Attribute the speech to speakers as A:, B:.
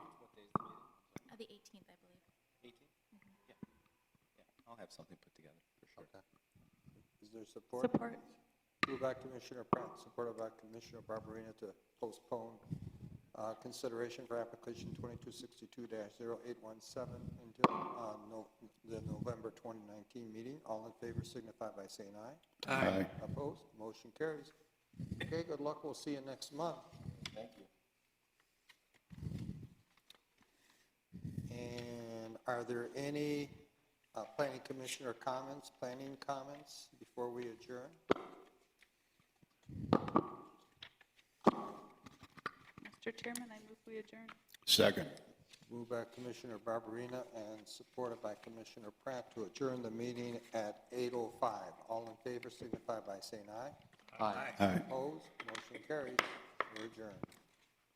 A: Uh, the 18th, I believe.
B: 18? Yeah, yeah, I'll have something put together, for sure.
C: Okay. Is there support? Moved by Commissioner Pratt, supported by Commissioner Barberina to postpone uh, consideration for application 2262-0817 until uh, no- the November 2019 meeting. All in favor signify by saying aye.
D: Aye.
C: Opposed? Motion carries. Okay, good luck. We'll see you next month.
B: Thank you.
C: And are there any uh, planning commissioner comments, planning comments before we adjourn?
E: Mr. Chairman, I move we adjourn.
D: Second.
C: Moved by Commissioner Barberina and supported by Commissioner Pratt to adjourn the meeting at 8:05. All in favor signify by saying aye.
D: Aye.
C: Opposed, motion carries. We're adjourned.